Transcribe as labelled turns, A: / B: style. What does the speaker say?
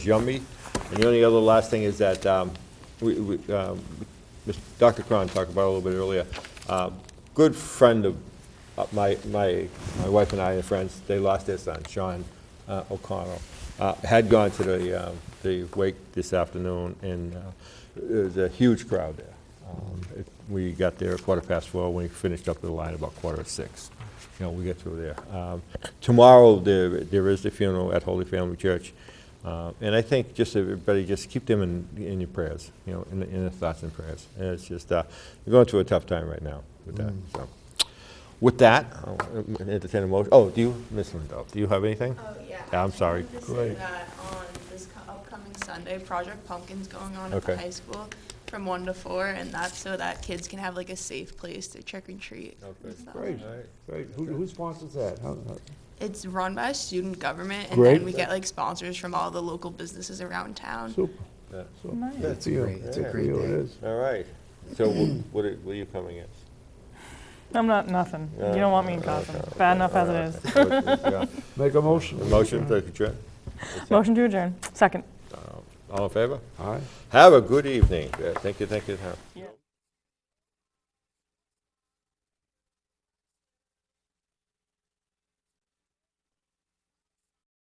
A: yummy. And the only other last thing is that, um, we, we, um, Mr. Dr. Cron talked about it a little bit earlier, Um, good friend of, uh, my, my, my wife and I are friends, they lost their son, Sean uh, O'Connell, Uh, had gone to the, um, the wake this afternoon, and uh, there was a huge crowd there. Um, it- We got there at quarter past four, we finished up the line about quarter to six you know, we get through there. Um, Tomorrow, there, there is the funeral at Holy Family Church. Uh, And I think just everybody, just keep them in, in your prayers, you know, in, in their thoughts and prayers. And it's just, uh, we're going through a tough time right now with that, so. With that, I'll entertain a motion. Oh, do you, Ms. Lindell, do you have anything?
B: Oh, yeah.
A: Yeah, I'm sorry.
B: I just
A: Go
B: wanted to say that on this co- upcoming Sunday, Project Pumpkin's going on at the
A: Okay.
B: high school from one to four, and that's so that kids can have like a safe place to trick or treat. and stuff.
C: Great, great. Who, who sponsors that? How- how-
B: It's run by student government, and
C: Great.
B: then we get like sponsors from all the local businesses around town.
C: Super.
A: Yeah.
C: super.
D: Nice.
C: Good
D: That's
C: for you.
D: great. That's a
C: Good for
D: great
C: you, it
D: thing.
C: is.
A: All right. So wh- what are, what are you coming as?
D: I'm not nothing. You don't want me in Gotham. Bad enough as it is.
A: Yeah.
C: Make a motion.
A: A Motion, to adjourn?
D: Motion to adjourn. Second.
A: All in favor?
C: All right.
A: Have a good evening. Yeah, Thank you, thank you. thank you.
D: Yeah.